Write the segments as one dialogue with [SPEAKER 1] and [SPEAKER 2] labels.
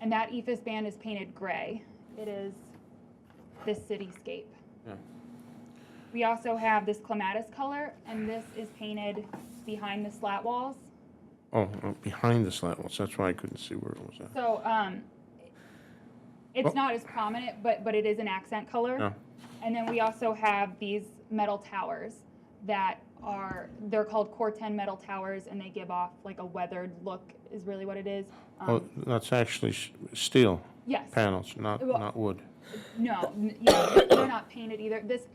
[SPEAKER 1] And that ethos band is painted gray. It is this cityscape.
[SPEAKER 2] Yeah.
[SPEAKER 1] We also have this clematis color, and this is painted behind the slat walls.
[SPEAKER 2] Oh, uh, behind the slat walls, that's why I couldn't see where it was at.
[SPEAKER 1] So um, it's
[SPEAKER 2] Well- Oh.
[SPEAKER 1] not as prominent, but but it is an accent color.
[SPEAKER 2] Yeah.
[SPEAKER 1] And then we also have these metal towers that are they're called Corten metal towers, and they give off like a weathered look is really what it is. Um,
[SPEAKER 2] Oh, that's actually s- steel
[SPEAKER 1] yes.
[SPEAKER 2] panels, not,
[SPEAKER 1] Well-
[SPEAKER 2] not wood.
[SPEAKER 1] No, n- yeah, they're not painted either. This,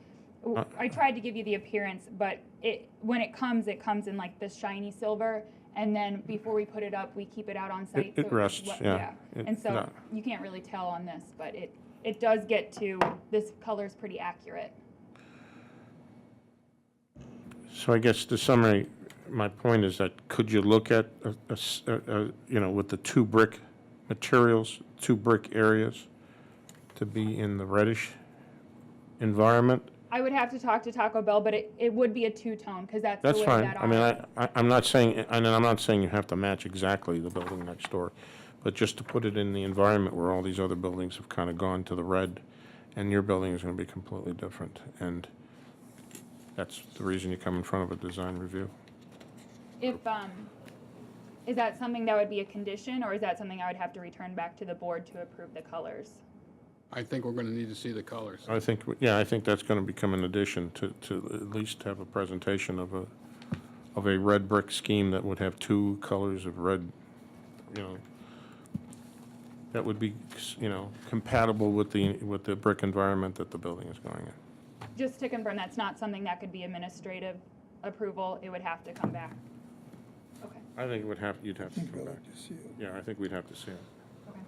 [SPEAKER 2] Uh.
[SPEAKER 1] I tried to give you the appearance, but it, when it comes, it comes in like this shiny silver. And then before we put it up, we keep it out on site.
[SPEAKER 2] it
[SPEAKER 1] so
[SPEAKER 2] rests,
[SPEAKER 1] wet-
[SPEAKER 2] yeah. It-
[SPEAKER 1] And so
[SPEAKER 2] no.
[SPEAKER 1] you can't really tell on this, but it, it does get to, this color's pretty accurate.
[SPEAKER 2] So I guess to summary, my point is that could you look at, a- a s- a- a- you know, with the two brick materials, two brick areas, to be in the reddish environment?
[SPEAKER 1] I would have to talk to Taco Bell, but it, it would be a two-tone because that's the
[SPEAKER 2] That's
[SPEAKER 1] way
[SPEAKER 2] fine.
[SPEAKER 1] that
[SPEAKER 2] I mean,
[SPEAKER 1] our,
[SPEAKER 2] I, I- I'm not saying, and I'm not saying you have to match exactly the building next door, but just to put it in the environment where all these other buildings have kind of gone to the red, and your building is going to be completely different. And that's the reason you come in front of a design review.
[SPEAKER 1] if, um, is that something that would be a condition or is that something I would have to return back to the board to approve the colors?
[SPEAKER 3] I think we're gonna need to see the colors.
[SPEAKER 2] I think, yeah, I think that's going to become an addition to, to at least have a presentation of a, of a red brick scheme that would have two colors of red, you know, that would be, you know, compatible with the, with the brick environment that the building is going in.
[SPEAKER 1] Just to confirm, that's not something that could be administrative approval, it would have to come back. Okay,
[SPEAKER 2] I think it would have, you'd have to come
[SPEAKER 4] Well,
[SPEAKER 2] back.
[SPEAKER 4] I just see it.
[SPEAKER 2] Yeah, I think we'd have to see it.
[SPEAKER 1] okay.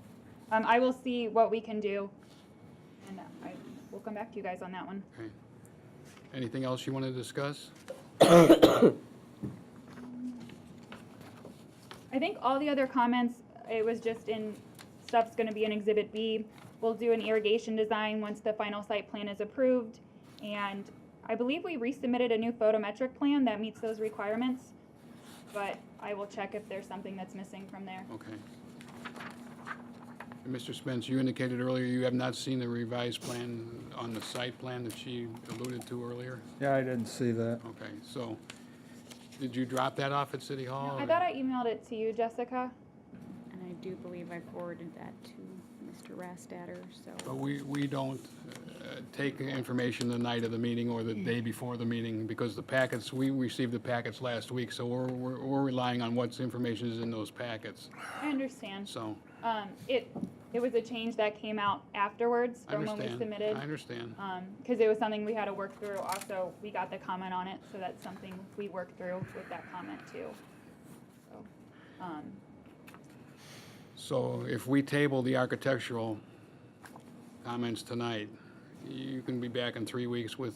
[SPEAKER 1] Um, I will see what we can do, and I will come back to you guys on that one.
[SPEAKER 3] Okay. Anything else you want to discuss?
[SPEAKER 1] I think all the other comments, it was just in, stuff's gonna be in Exhibit B. We'll do an irrigation design once the final site plan is approved. And I believe we resubmitted a new photometric plan that meets those requirements. But I will check if there's something that's missing from there.
[SPEAKER 3] Okay. And Mr. Spence, you indicated earlier you have not seen the revised plan on the site plan that she alluded to earlier?
[SPEAKER 4] Yeah, I didn't see that.
[SPEAKER 3] Okay, so, did you drop that off at City Hall?
[SPEAKER 1] I
[SPEAKER 3] or-
[SPEAKER 1] thought I emailed it to you, Jessica.
[SPEAKER 5] And I do believe I forwarded that to Mr. Rastatter,
[SPEAKER 3] But
[SPEAKER 5] so.
[SPEAKER 3] we, we don't uh, take information the night of the meeting or the day before the meeting, because the packets, we received the packets last week, so we're, we're we're relying on what's information is in those packets,
[SPEAKER 1] I understand.
[SPEAKER 3] so.
[SPEAKER 1] Um, it, it was a change that came out afterwards
[SPEAKER 3] I
[SPEAKER 1] from when we
[SPEAKER 3] understand.
[SPEAKER 1] submitted.
[SPEAKER 3] I understand.
[SPEAKER 1] Um, cause it was something we had to work through. Also, we got the comment on it, so that's something we worked through with that comment too. So, um,
[SPEAKER 3] So if we table the architectural comments tonight, you can be back in three weeks with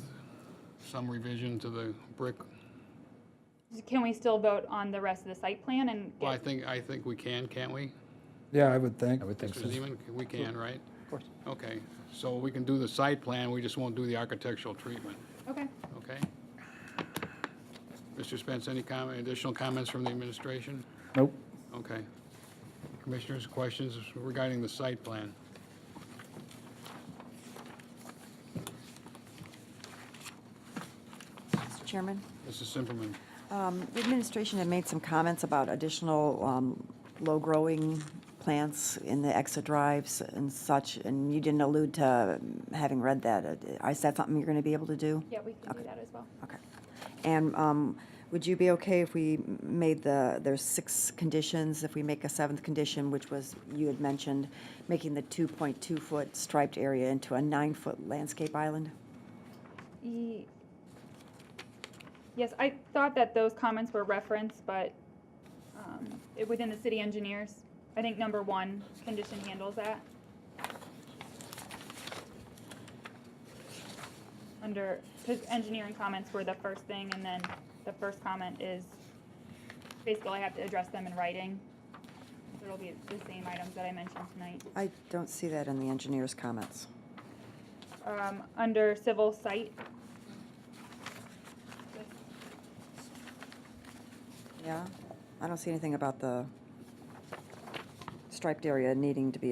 [SPEAKER 3] some revision to the brick.
[SPEAKER 1] Can we still vote on the rest of the site plan and
[SPEAKER 3] Well, I
[SPEAKER 1] get,
[SPEAKER 3] think, I think we can, can't we?
[SPEAKER 4] Yeah, I would think. I would
[SPEAKER 3] Mr. Zeman, we can, right? Of course. Okay, so we can do the site plan, we just won't do the architectural treatment,
[SPEAKER 1] okay?
[SPEAKER 3] okay? Mr. Spence, any comment, additional comments from the administration?
[SPEAKER 4] Nope.
[SPEAKER 3] Okay. Commissioners, questions regarding the site plan?
[SPEAKER 6] Mr. Chairman,
[SPEAKER 3] Mrs. Simperman?
[SPEAKER 6] um, the administration had made some comments about additional um, low-growing plants in the exit drives and such, and you didn't allude to having read that. Uh, Is that something you're going to be able to do?
[SPEAKER 1] Yeah, we can do that as well.
[SPEAKER 6] Okay. And um, would you be okay if we made the, there's six conditions, if we make a seventh condition, which was, you had mentioned, making the 2.2-foot striped area into a nine-foot landscape island?
[SPEAKER 1] Ye- E, Yes, I thought that those comments were referenced, but, um, it, within the city engineers, I think number one condition handles that. Under, cause engineering comments were the first thing, and then the first comment is, basically I have to address them in writing. So It'll be the same items that I mentioned tonight.
[SPEAKER 6] I don't see that in the engineer's comments.
[SPEAKER 1] Um, under civil site. This
[SPEAKER 6] Yeah, I don't see anything about the striped area needing to be